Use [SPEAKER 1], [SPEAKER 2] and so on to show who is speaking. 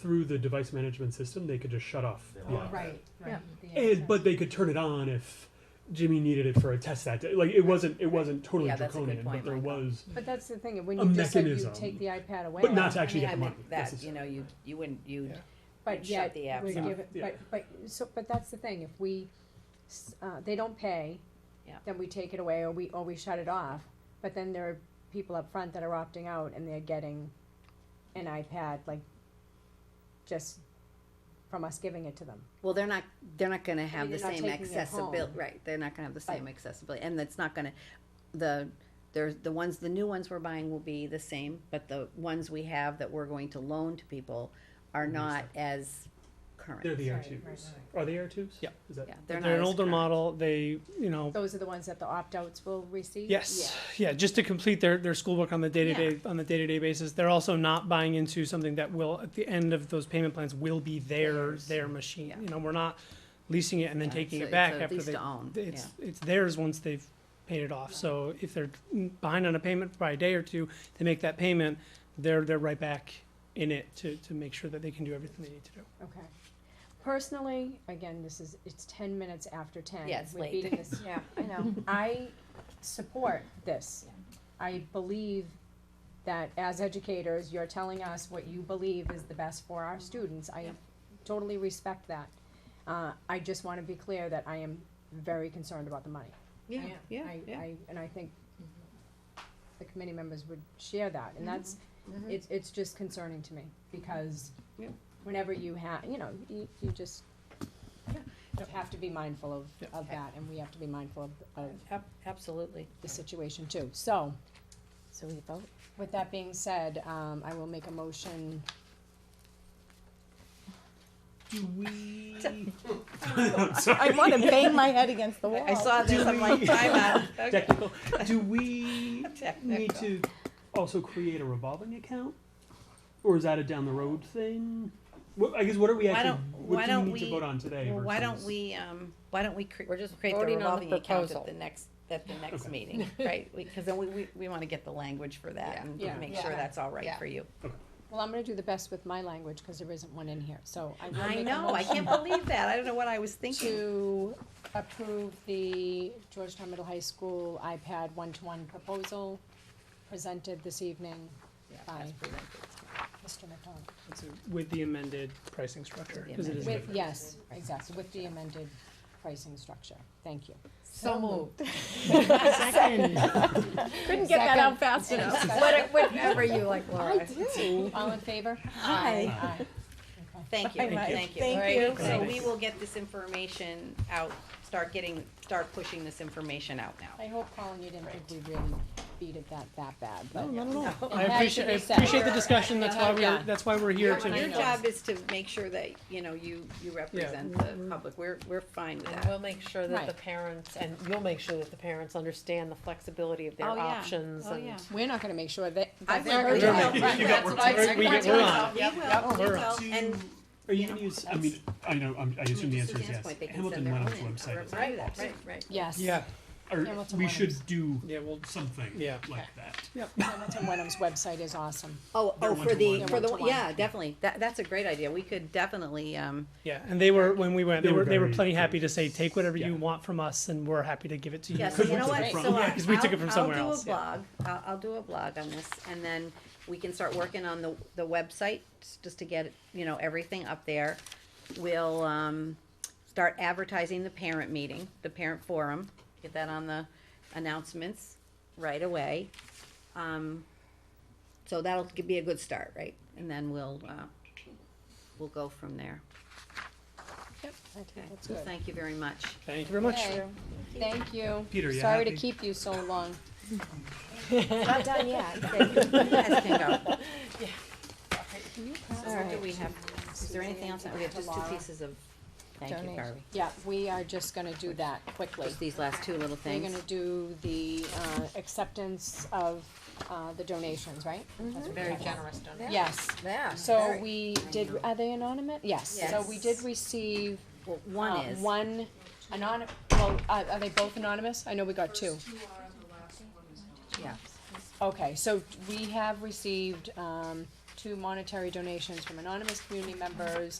[SPEAKER 1] through the device management system, they could just shut off.
[SPEAKER 2] They
[SPEAKER 1] the
[SPEAKER 2] lock
[SPEAKER 1] app.
[SPEAKER 3] Right, right.
[SPEAKER 1] And- but they could turn it on if Jimmy needed it for a test that day. Like it wasn't, it wasn't totally
[SPEAKER 4] Yeah, that's a good
[SPEAKER 1] draconian,
[SPEAKER 4] point,
[SPEAKER 1] but there
[SPEAKER 4] Michael.
[SPEAKER 1] was,
[SPEAKER 3] But that's the thing, when
[SPEAKER 1] A
[SPEAKER 3] you just said you
[SPEAKER 1] mechanism.
[SPEAKER 3] take the iPad away.
[SPEAKER 1] but not to actually
[SPEAKER 4] I mean,
[SPEAKER 1] get
[SPEAKER 4] I
[SPEAKER 1] the money.
[SPEAKER 4] meant that, you
[SPEAKER 1] necessarily.
[SPEAKER 4] know, you, you wouldn't, you'd,
[SPEAKER 3] But
[SPEAKER 4] Shut
[SPEAKER 3] yet,
[SPEAKER 4] the apps
[SPEAKER 3] we
[SPEAKER 4] off.
[SPEAKER 3] give it,
[SPEAKER 1] Yeah.
[SPEAKER 3] but, but, so, but that's the thing, if we, s- uh, they don't pay,
[SPEAKER 4] Yeah.
[SPEAKER 3] then we take it away, or we, or we shut it off, but then there are people up front that are opting out, and they're getting an iPad, like, just from us giving it to them.
[SPEAKER 5] Well, they're not, they're not gonna have
[SPEAKER 3] mean,
[SPEAKER 5] the
[SPEAKER 3] they're not
[SPEAKER 5] same
[SPEAKER 3] taking it home.
[SPEAKER 5] accessibility, right, they're not gonna have the same accessibility, and it's not gonna, the, there's, the ones, the new ones we're buying will be the same, but the ones we have that we're going to loan to people are
[SPEAKER 6] Mm-hmm.
[SPEAKER 5] not as current.
[SPEAKER 1] They're the air
[SPEAKER 3] Right,
[SPEAKER 1] tubes.
[SPEAKER 3] right,
[SPEAKER 1] Are they air tubes?
[SPEAKER 6] Yeah.
[SPEAKER 1] Is that?
[SPEAKER 5] Yeah,
[SPEAKER 6] They're,
[SPEAKER 5] not
[SPEAKER 6] an
[SPEAKER 5] as
[SPEAKER 6] older
[SPEAKER 5] current.
[SPEAKER 6] model. They, you know,
[SPEAKER 3] Those are the ones that the opt-outs will receive?
[SPEAKER 6] yes, yeah. just to complete their their schoolwork on the day to day on the day to day basis. They're also not buying into something that will at the end of those payment plans will be their
[SPEAKER 5] Theirs.
[SPEAKER 6] their machine.
[SPEAKER 5] Yeah.
[SPEAKER 6] You know, we're not leasing it and then
[SPEAKER 5] Yeah,
[SPEAKER 6] taking
[SPEAKER 5] so
[SPEAKER 6] it
[SPEAKER 5] it's
[SPEAKER 6] back
[SPEAKER 5] a
[SPEAKER 6] after
[SPEAKER 5] lease
[SPEAKER 6] they
[SPEAKER 5] to own,
[SPEAKER 6] it's it's theirs once they've paid it off. So if they're behind on a payment by a day or two, they make that payment. They're they're right back in it to to make sure that they can do everything they need to do.
[SPEAKER 3] Okay. Personally, again, this is, it's ten minutes after ten.
[SPEAKER 4] Yeah, it's
[SPEAKER 3] We're
[SPEAKER 4] late.
[SPEAKER 3] beating this-
[SPEAKER 4] yeah, I know.
[SPEAKER 3] I support this. I believe that as educators, you're telling us what you believe is the best for our students. I totally respect that. Uh, I just wanna be clear that I am very concerned about the money.
[SPEAKER 5] Yeah,
[SPEAKER 3] I-
[SPEAKER 5] yeah,
[SPEAKER 3] I-
[SPEAKER 5] yeah.
[SPEAKER 3] I- And I think the committee members would share that, and that's,
[SPEAKER 4] Mm-hmm.
[SPEAKER 3] it's, it's just concerning to me, because
[SPEAKER 5] Yeah.
[SPEAKER 3] whenever you have, you know, you, you just have to be mindful of,
[SPEAKER 6] Yeah.
[SPEAKER 3] of that, and we have to be mindful of, of
[SPEAKER 4] Ab- Absolutely.
[SPEAKER 3] the situation too, so. So we vote? With that being said, um, I will make a motion,
[SPEAKER 1] Do we?
[SPEAKER 7] I want to bang my head against the wall.
[SPEAKER 3] Oh.
[SPEAKER 4] I saw this, I'm like, time out. Okay.
[SPEAKER 1] Technical. Do we need
[SPEAKER 4] Technical.
[SPEAKER 1] to also create a revolving account? Or is that a down the road thing? What, I guess what are we
[SPEAKER 4] Why
[SPEAKER 1] actually,
[SPEAKER 4] don't- why
[SPEAKER 1] what do we
[SPEAKER 4] don't
[SPEAKER 1] need to
[SPEAKER 4] we-
[SPEAKER 1] vote on today?
[SPEAKER 4] Well, why don't
[SPEAKER 1] versus-
[SPEAKER 4] we, um, why don't we cre-
[SPEAKER 5] We're just
[SPEAKER 4] create the
[SPEAKER 5] voting on the
[SPEAKER 4] revolving account
[SPEAKER 5] proposal.
[SPEAKER 4] at the next, at the next
[SPEAKER 1] Okay.
[SPEAKER 4] meeting, right? We- Cause then we, we, we wanna get the language for that
[SPEAKER 5] Yeah.
[SPEAKER 4] and
[SPEAKER 3] Yeah.
[SPEAKER 4] make
[SPEAKER 3] Yeah.
[SPEAKER 4] sure that's all right
[SPEAKER 5] Yeah.
[SPEAKER 4] for you.
[SPEAKER 3] well, I'm gonna do the best with my language, cause there isn't one in here, so I will make a
[SPEAKER 4] I
[SPEAKER 3] motion.
[SPEAKER 4] know, I can't believe that, I don't know what I was thinking.
[SPEAKER 3] to approve the Georgetown Middle High School iPad one-to-one proposal presented this evening
[SPEAKER 4] Yeah,
[SPEAKER 3] by
[SPEAKER 4] that's presented.
[SPEAKER 3] Mr. McDonald.
[SPEAKER 6] That's it, With the amended pricing structure,
[SPEAKER 4] With the
[SPEAKER 6] 'cause it is
[SPEAKER 3] With,
[SPEAKER 6] different.
[SPEAKER 3] yes, exactly, with the amended pricing structure. Thank you.
[SPEAKER 4] So moved.
[SPEAKER 7] Couldn't get that out fast
[SPEAKER 3] Second.
[SPEAKER 7] enough.
[SPEAKER 3] What-
[SPEAKER 7] Whatever you like, Laura.
[SPEAKER 3] All in favor?
[SPEAKER 7] Aye.
[SPEAKER 3] Aye. Okay.
[SPEAKER 4] Thank you,
[SPEAKER 7] Very much.
[SPEAKER 4] thank you.
[SPEAKER 7] Thank
[SPEAKER 4] All right,
[SPEAKER 7] you.
[SPEAKER 4] So
[SPEAKER 1] Thanks.
[SPEAKER 4] we will get this information out, start getting, start pushing this information out now.
[SPEAKER 3] I hope, Colin, you didn't think we really beated that that bad, but.
[SPEAKER 6] No, no, no. I
[SPEAKER 3] It had
[SPEAKER 6] appreciate,
[SPEAKER 3] to
[SPEAKER 6] I
[SPEAKER 3] be said.
[SPEAKER 6] appreciate the discussion, that's why
[SPEAKER 3] Yeah.
[SPEAKER 6] we're, that's why we're here
[SPEAKER 3] I
[SPEAKER 4] Oh, Your
[SPEAKER 3] know.
[SPEAKER 6] to,
[SPEAKER 4] job is to make sure that, you know, you, you represent the public, we're, we're fine with
[SPEAKER 8] And
[SPEAKER 4] that.
[SPEAKER 8] we'll make sure that the
[SPEAKER 3] Right.
[SPEAKER 8] parents, and you'll make sure that the parents understand the flexibility of
[SPEAKER 4] Oh,
[SPEAKER 8] their
[SPEAKER 4] yeah.
[SPEAKER 8] options
[SPEAKER 4] Oh,
[SPEAKER 8] and.
[SPEAKER 4] yeah.
[SPEAKER 3] We're not gonna make sure that. that
[SPEAKER 4] I've
[SPEAKER 3] they're
[SPEAKER 4] worked
[SPEAKER 3] hurt.
[SPEAKER 4] out.
[SPEAKER 3] Right,
[SPEAKER 4] You
[SPEAKER 3] that's
[SPEAKER 4] got
[SPEAKER 3] what
[SPEAKER 4] worked
[SPEAKER 3] I
[SPEAKER 4] out.
[SPEAKER 3] said.
[SPEAKER 6] We get- we're on.
[SPEAKER 4] We will, we
[SPEAKER 6] we're
[SPEAKER 4] will, and.
[SPEAKER 1] Are you
[SPEAKER 4] you
[SPEAKER 1] gonna
[SPEAKER 4] know,
[SPEAKER 1] use, I
[SPEAKER 4] that's-
[SPEAKER 1] mean, I know, I'm, I assume the
[SPEAKER 4] to
[SPEAKER 1] answer is
[SPEAKER 4] Suzanne's
[SPEAKER 1] yes.
[SPEAKER 4] point, they can
[SPEAKER 1] Hamilton
[SPEAKER 4] send their
[SPEAKER 1] Lennox
[SPEAKER 4] own in.
[SPEAKER 1] website is.
[SPEAKER 4] Right, right, right.
[SPEAKER 3] Yes.
[SPEAKER 6] yeah,
[SPEAKER 1] or
[SPEAKER 3] Hamilton
[SPEAKER 1] we
[SPEAKER 3] Lennox.
[SPEAKER 1] should do
[SPEAKER 6] yeah, well,
[SPEAKER 1] something
[SPEAKER 6] Yeah.
[SPEAKER 1] like that.
[SPEAKER 3] Hamilton Wenham's website is awesome.
[SPEAKER 5] Oh,
[SPEAKER 1] They're
[SPEAKER 5] oh, for the,
[SPEAKER 3] one-to-one.
[SPEAKER 5] for
[SPEAKER 3] They're
[SPEAKER 5] the,
[SPEAKER 3] one-to-one.
[SPEAKER 5] yeah, definitely, that, that's a great idea, we could definitely, um,
[SPEAKER 6] yeah, and they were, when we went,
[SPEAKER 1] They
[SPEAKER 6] they
[SPEAKER 1] were
[SPEAKER 6] were, they were
[SPEAKER 1] very
[SPEAKER 6] plenty happy to
[SPEAKER 1] gracious.
[SPEAKER 6] say, take whatever you
[SPEAKER 1] Yeah.
[SPEAKER 6] want from us, and we're happy to give it to you.
[SPEAKER 5] Yeah,
[SPEAKER 1] Could
[SPEAKER 5] so you know
[SPEAKER 1] we
[SPEAKER 5] what,
[SPEAKER 1] take it
[SPEAKER 5] so
[SPEAKER 1] from-
[SPEAKER 5] I-
[SPEAKER 6] Yeah, 'cause we took it from
[SPEAKER 5] I'll-
[SPEAKER 6] somewhere
[SPEAKER 5] I'll
[SPEAKER 6] else,
[SPEAKER 5] do a blog, I'll, I'll do a blog on this, and then we can start working on the, the website, s- just to get, you know, everything up there. We'll, um, start advertising the parent meeting, the parent forum, get that on the announcements right away. Um, so that'll g- be a good start, right, and then we'll, uh, we'll go from there.
[SPEAKER 3] Yep. I think
[SPEAKER 5] Okay,
[SPEAKER 3] that's
[SPEAKER 5] so
[SPEAKER 3] good.
[SPEAKER 5] thank you very much.
[SPEAKER 6] Thank you very much.
[SPEAKER 3] Okay, Thank you.
[SPEAKER 1] Peter, you
[SPEAKER 3] Sorry to
[SPEAKER 1] happy?
[SPEAKER 3] keep you so long.
[SPEAKER 5] Not done yet. You guys can go. So what do we have, is there anything else? We have just two
[SPEAKER 3] Tomorrow.
[SPEAKER 5] pieces of, thank you,
[SPEAKER 7] Donation.
[SPEAKER 5] Barbie.
[SPEAKER 3] Yeah, we are just gonna do that quickly.
[SPEAKER 5] Just these last two little
[SPEAKER 3] We're
[SPEAKER 5] things.
[SPEAKER 3] gonna do the, uh, acceptance of, uh, the donations, right?
[SPEAKER 5] Mm-hmm.
[SPEAKER 8] Very generous donors.
[SPEAKER 3] Yes.
[SPEAKER 7] Yeah.
[SPEAKER 3] So we did, are they anonymous? Yes. So we did
[SPEAKER 5] Yes.
[SPEAKER 3] receive
[SPEAKER 5] Well, one
[SPEAKER 3] Uh,
[SPEAKER 5] is,
[SPEAKER 3] One anonymous, well, are, are they both anonymous? I know we got two.
[SPEAKER 5] yeah,
[SPEAKER 3] Okay, so we have received, um, to monetary donations from anonymous community members,